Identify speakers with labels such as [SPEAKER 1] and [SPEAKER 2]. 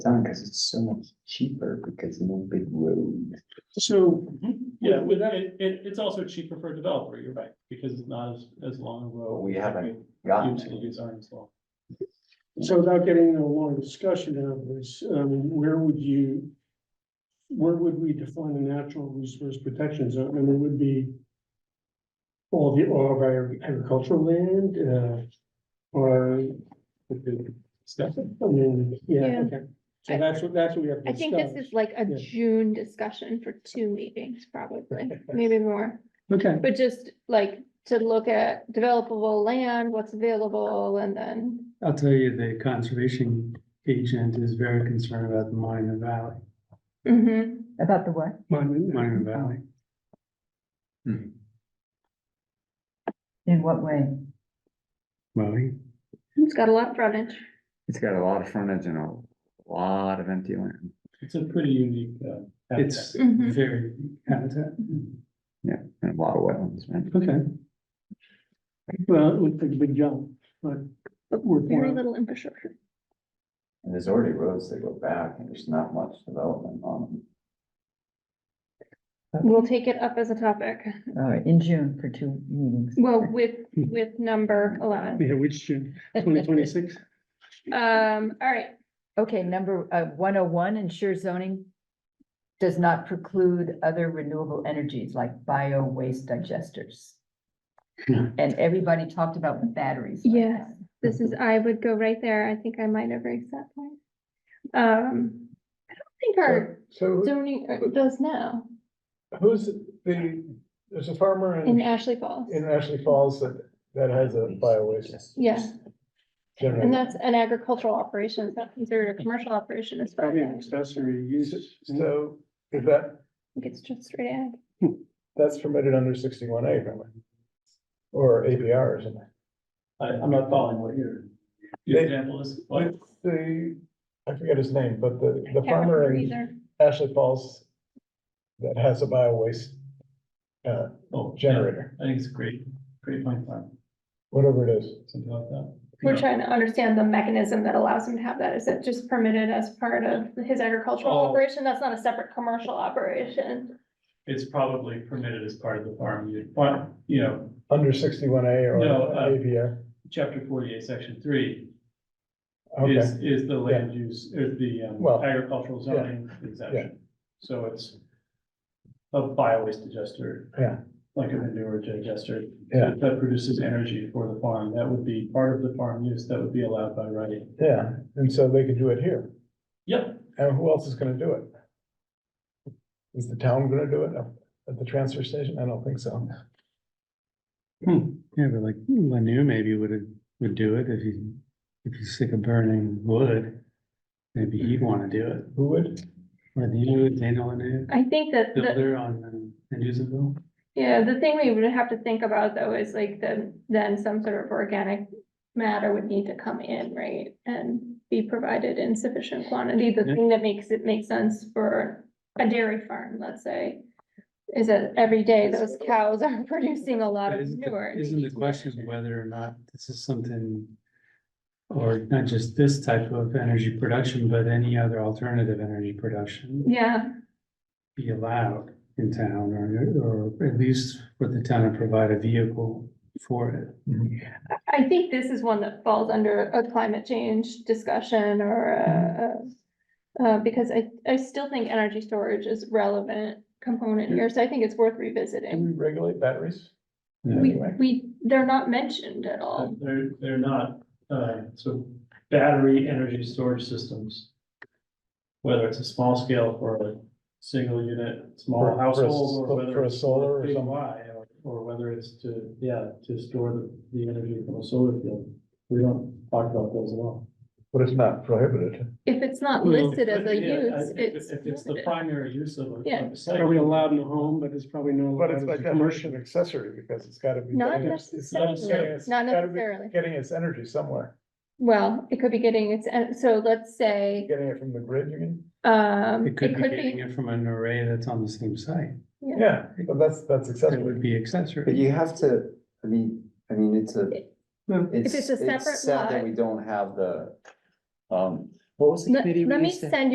[SPEAKER 1] done because it's so much cheaper because no big road.
[SPEAKER 2] So, yeah, with that, it, it, it's also cheaper for a developer, you're right, because it's not as, as long a road.
[SPEAKER 1] We haven't gotten it.
[SPEAKER 2] Utilities aren't as long.
[SPEAKER 3] So without getting into a long discussion of this, um, where would you? Where would we define a natural resource protection zone? I mean, it would be. All the, all of our agricultural land, uh, or,
[SPEAKER 2] Discussion.
[SPEAKER 3] I mean, yeah,
[SPEAKER 4] Yeah.
[SPEAKER 3] okay. So that's what, that's what we have to
[SPEAKER 4] I think this
[SPEAKER 3] discuss.
[SPEAKER 4] is like a
[SPEAKER 3] Yeah.
[SPEAKER 4] June discussion for two meetings, probably, maybe more.
[SPEAKER 3] Okay,
[SPEAKER 4] But just like to look at developable land, what's available, and then,
[SPEAKER 5] I'll tell you, the conservation agent is very concerned about the Monument Valley,
[SPEAKER 4] Mhm.
[SPEAKER 6] About the what?
[SPEAKER 5] Monument Valley.
[SPEAKER 6] In what way?
[SPEAKER 5] Well, he-
[SPEAKER 4] it's got a lot of frontage.
[SPEAKER 1] It's got a lot of frontage and a lot of empty land.
[SPEAKER 2] It's a pretty unique, uh. habitat.
[SPEAKER 5] it's
[SPEAKER 4] Mhm.
[SPEAKER 5] very habitat.
[SPEAKER 1] Yeah, and a lot of wetlands, man.
[SPEAKER 3] okay. Well, it looks like a big jump, but. we're-
[SPEAKER 4] Very little infrastructure.
[SPEAKER 1] And there's already roads that go back and there's not much development on
[SPEAKER 4] We'll take it up as a topic.
[SPEAKER 6] All right, in June for two meetings.
[SPEAKER 4] Well, with, with number eleven.
[SPEAKER 3] Yeah, which, twenty twenty-six?
[SPEAKER 4] Um, all right,
[SPEAKER 6] Okay, number uh one oh one, ensure zoning does not preclude other renewable energies like bio waste digesters.
[SPEAKER 5] Yeah.
[SPEAKER 6] And everybody talked about batteries. like
[SPEAKER 4] Yes.
[SPEAKER 6] that.
[SPEAKER 4] this is, I would go right there. I think I might have raised that point. Um, I don't think our
[SPEAKER 7] So
[SPEAKER 4] zoning uh, does now
[SPEAKER 7] who- who's the, there's a farmer
[SPEAKER 4] in
[SPEAKER 7] in,
[SPEAKER 4] Ashley Falls.
[SPEAKER 7] in Ashley Falls that, that has a bio waste
[SPEAKER 4] Yeah. And
[SPEAKER 7] generator.
[SPEAKER 4] that's an agricultural operation, it's not considered a commercial operation as far as
[SPEAKER 3] Probably
[SPEAKER 4] I
[SPEAKER 3] an
[SPEAKER 4] know.
[SPEAKER 3] accessory use.
[SPEAKER 7] So is that,
[SPEAKER 4] I think it's just straight ag.
[SPEAKER 7] that's permitted under sixty-one A, remember? Or ABR, isn't it?
[SPEAKER 2] I, I'm not following what your, your
[SPEAKER 7] They-
[SPEAKER 2] example is, but
[SPEAKER 7] It's The, I forget his name, but the, the farmer in
[SPEAKER 4] Either.
[SPEAKER 7] Ashley Falls that has a bio waste uh,
[SPEAKER 2] oh, generator.
[SPEAKER 7] generator,
[SPEAKER 2] I think it's a great, great point, Tom,
[SPEAKER 7] whatever it is.
[SPEAKER 2] something like that.
[SPEAKER 4] We're trying to understand the mechanism that allows him to have that. Is it just permitted as part of his agricultural
[SPEAKER 2] Oh.
[SPEAKER 4] operation? That's not a separate commercial operation.
[SPEAKER 2] It's probably permitted as part of the farm, unit farm, you know,
[SPEAKER 7] Under sixty-one A or
[SPEAKER 2] No, uh,
[SPEAKER 7] ABR.
[SPEAKER 2] chapter forty-eight, section three.
[SPEAKER 7] Okay,
[SPEAKER 2] Is, is the land use, is the um,
[SPEAKER 7] Well,
[SPEAKER 2] agricultural zoning exemption. So it's a bio-waste digester.
[SPEAKER 7] Yeah.
[SPEAKER 2] Like a manure digester.
[SPEAKER 7] Yeah.
[SPEAKER 2] That produces energy for the farm. That would be part of the farm use that would be allowed by right.
[SPEAKER 7] yeah, and so they could do it here.
[SPEAKER 2] Yep,
[SPEAKER 7] And who else is gonna do it? Is the town gonna do it up at the transfer station? I don't think so.
[SPEAKER 5] Yeah, but like Lanu maybe would, would do it if he, if he's sick of burning wood. Maybe he'd want to do it.
[SPEAKER 7] Who would?
[SPEAKER 5] Lanu, Dana Lanu,
[SPEAKER 4] I think that, Uh, the-
[SPEAKER 5] builder on, um, Andrewsville.
[SPEAKER 4] yeah, the thing we would have to think about though is like the, then some sort of organic matter would need to come in, right? And be provided in sufficient quantity. The
[SPEAKER 5] Yeah.
[SPEAKER 4] thing that makes it make sense for a dairy farm, let's say, is that every day those cows are producing a lot of
[SPEAKER 5] Isn't the-
[SPEAKER 4] manure. and they
[SPEAKER 5] Isn't the
[SPEAKER 4] need
[SPEAKER 5] question whether or not this is something, or not just this type of energy production, but any other alternative energy production
[SPEAKER 4] Yeah,
[SPEAKER 5] be allowed in town, or, or at least for the town to provide a vehicle for it?
[SPEAKER 4] I- I think this is one that falls under a climate change discussion or a. a- Uh, because I, I still think energy storage is relevant component here, so I think it's worth
[SPEAKER 7] Can
[SPEAKER 4] revisiting.
[SPEAKER 7] we regulate batteries?
[SPEAKER 4] We,
[SPEAKER 7] Anyway.
[SPEAKER 4] we, they're not mentioned at
[SPEAKER 2] uh,
[SPEAKER 4] all.
[SPEAKER 2] they're, they're not, uh, so battery energy storage systems. Whether it's a small scale for a single unit,
[SPEAKER 7] For-
[SPEAKER 2] small
[SPEAKER 7] for a
[SPEAKER 2] household,
[SPEAKER 7] sol-
[SPEAKER 2] or whether.
[SPEAKER 7] for a
[SPEAKER 2] it's
[SPEAKER 7] solar or
[SPEAKER 2] big
[SPEAKER 7] something.
[SPEAKER 2] Y, or- Or whether it's to, yeah, to store the, the energy from a solar field. We don't talk about those at all.
[SPEAKER 7] But it's not prohibited.
[SPEAKER 4] If it's not
[SPEAKER 3] Well,
[SPEAKER 4] listed as a
[SPEAKER 2] Yeah, I-
[SPEAKER 4] use,
[SPEAKER 2] if-
[SPEAKER 4] it's.
[SPEAKER 2] If it's the
[SPEAKER 4] limited.
[SPEAKER 2] primary use of a-
[SPEAKER 4] Yeah.
[SPEAKER 2] of a site.
[SPEAKER 3] Probably allowed in the home, but it's probably not.
[SPEAKER 7] But it's
[SPEAKER 3] allowed
[SPEAKER 7] by
[SPEAKER 3] as a commercial.
[SPEAKER 7] definition accessory because it's gotta be.
[SPEAKER 4] Not
[SPEAKER 7] getting its- it's gotta be
[SPEAKER 2] necessarily.
[SPEAKER 7] getting its-
[SPEAKER 4] Not
[SPEAKER 7] gotta be
[SPEAKER 4] necessarily.
[SPEAKER 7] Getting its energy somewhere,
[SPEAKER 4] Well, it could be getting its, en- so let's say,
[SPEAKER 7] getting it from the grid, you mean?
[SPEAKER 4] um,
[SPEAKER 5] It could be getting it from an array that's on the same site,
[SPEAKER 4] Yeah.
[SPEAKER 7] Yeah, but that's, that's
[SPEAKER 5] that
[SPEAKER 7] accessory.
[SPEAKER 5] would be
[SPEAKER 1] But
[SPEAKER 5] accessory.
[SPEAKER 1] you have to, I mean, I mean, it's a.
[SPEAKER 4] If it's a separate
[SPEAKER 1] Sad that
[SPEAKER 4] lot-
[SPEAKER 1] we don't have the, um, What was the
[SPEAKER 4] Let
[SPEAKER 1] committee we
[SPEAKER 4] let me
[SPEAKER 1] used to-
[SPEAKER 4] send